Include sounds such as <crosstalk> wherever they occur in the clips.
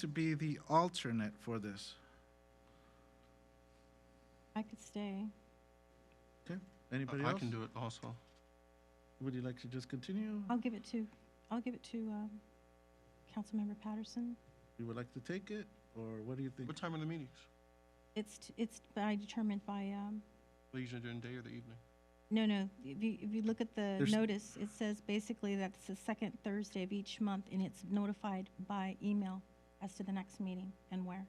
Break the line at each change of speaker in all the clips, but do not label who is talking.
to be the alternate for this?
I could stay.
Okay, anybody
I
else?
can do it also.
Would you like to just continue?
I'll give it to, I'll give it to um, Councilmember Patterson.
You would like to take it, or what do you think?
What time are the meetings?
It's, t- it's by determined by, um,
They Usually during the day or the evening?
no, no, if you, if you look at the
There's-
notice, it says basically that it's the second Thursday of each month, and it's notified by email as to the next meeting and where.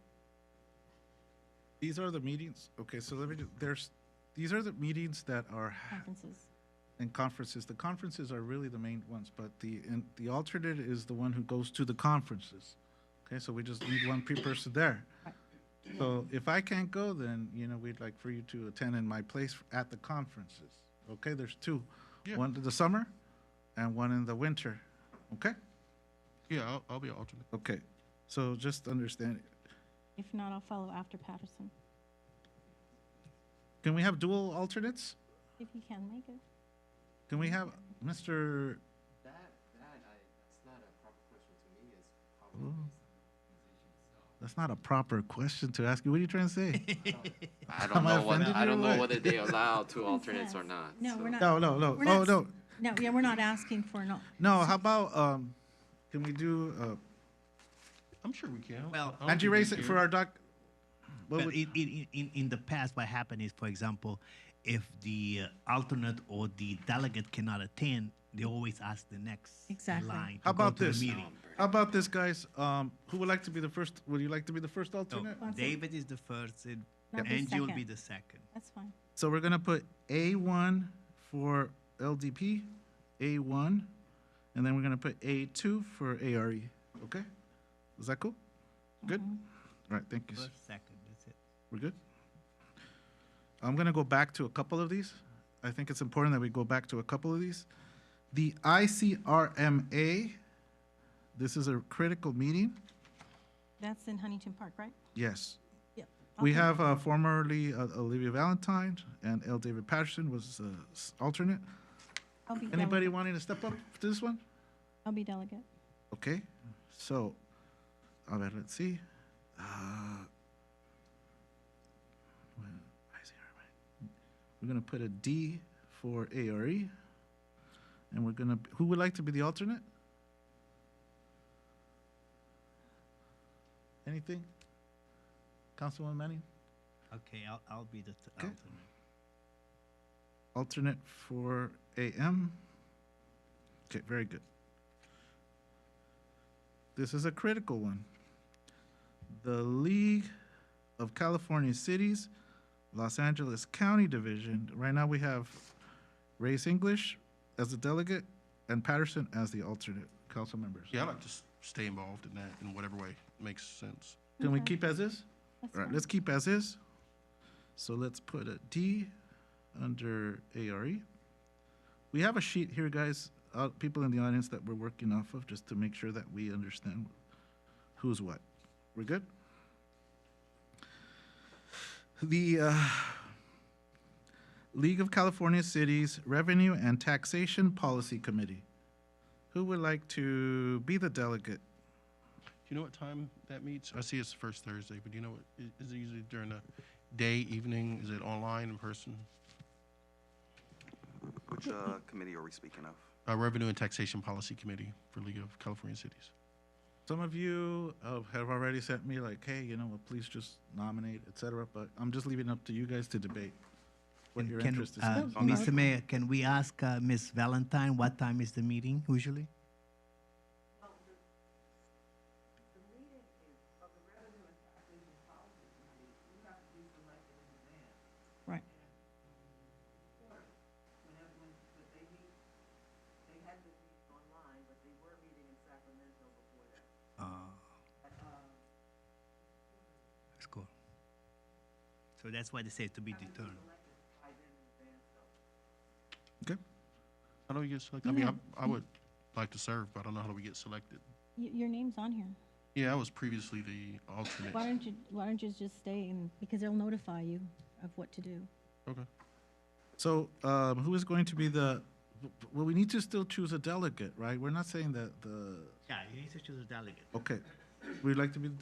These are the meetings, okay, so let me, ju- there's, these are the meetings that are,
Conferences.
and conferences, the conferences are really the main ones, but the, and the alternate is the one who goes to the conferences. Okay, so we just need one pre- person there. So if I can't go, then, you know, we'd like for you to attend in my place at the conferences. Okay, there's two,
Yeah.
one in the summer and one in the winter, okay?
Yeah, I'll, I'll be an alternate.
Okay, so just understand,
If not, I'll follow after Patterson,
can we have dual alternates?
if he can make it.
Can we have Mr.,
That, that, I, that's not a proper question to me, it's probably
that's not a proper question to ask you, what are you trying to
<laughs>
say?
I
Am
don't
I
know whether,
offended
I
you or
don't know
what? <laughs>
whether they allow two alternates or
Yes.
not.
No,
so-
we're not.
No, no, no,
we're
oh,
not-
no,
No, yeah, we're not asking for an, al-
no, how about, um, can we do, uh,
I'm sure we can.
Well-
I don't
Angie
think we
Race it
care.
for our doc? What
Well,
would-
in, in, in, in the past, what happened is, for example, if the uh, alternate or the delegate cannot attend, they always ask the next
Exactly.
line. to
How
go
about
to the
this?
meeting.
How about this, guys? Um, who would like to be the first, would you like to be the first
So
alternate?
What's it?
David is the first, and
Not the
Angie will be
second.
the second.
that's fine.
So we're gonna put A one for LDP, A one, and then we're gonna put A two for ARE, okay? Is that cool? Good? All right, thank you. sir.
First, second, that's it.
We're good? I'm gonna go back to a couple of these. I think it's important that we go back to a couple of these. The ICRMA, this is a critical meeting,
That's in Huntington Park, right?
yes.
Yep.
We
Okay.
have uh, formerly uh, Olivia Valentine and L. David Patterson was uh, s- alternate.
I'll be
Anybody
delegate.
wanting to step up to this one?
I'll be delegate.
Okay, so, a ver, let's see. Uh, well, why is it hard? We're gonna put a D for ARE, and we're gonna, who would like to be the alternate? Anything? Councilwoman Manning,
Okay, I'll, I'll be the t-
Okay.
alternate.
alternate for AM? Okay, very good. This is a critical one. The League of California Cities, Los Angeles County Division. Right now, we have Reyes English as the delegate and Patterson as the alternate council members.
Yeah, I like to s- stay involved in that in whatever way makes sense.
Can we
Okay.
keep as is?
That's
All right,
fine.
let's keep as is. So let's put a D under ARE. We have a sheet here, guys, uh, people in the audience that we're working off of, just to make sure that we understand who's what. We're good? The uh, League of California Cities Revenue and Taxation Policy Committee. Who would like to be the delegate?
Do you know what time that meets? I see it's the first Thursday, but do you know what, i- is it usually during the day, evening? Is it online, in person?
Which uh, committee are we speaking of?
Uh, Revenue and Taxation Policy Committee for League of California Cities.
Some of you uh, have already sent me like, hey, you know what, please just nominate, et cetera, but I'm just leaving it up to you guys to debate what
And
your
can,
interest is. Um,
uh,
in.
on that.
Mr. Mayor, can we ask uh, Ms. Valentine what time is the meeting usually?
Right.
whenever, when, but they meet, they had to meet online, but they were meeting in Sacramento before that.
Uh, That's cool. So that's why they say to be determined.
Okay,
How do we get selected? I mean, I, I would like to serve, but I don't know how do we get selected.
Y- Your name's on here.
Yeah, I was previously the alternate.
Why don't you, why don't you just stay and, because they'll notify you of what to do.
Okay.
so um, who is going to be the, well, we need to still choose a delegate, right? We're not saying that the,
Yeah, you need to choose a delegate.
okay, we'd like to be the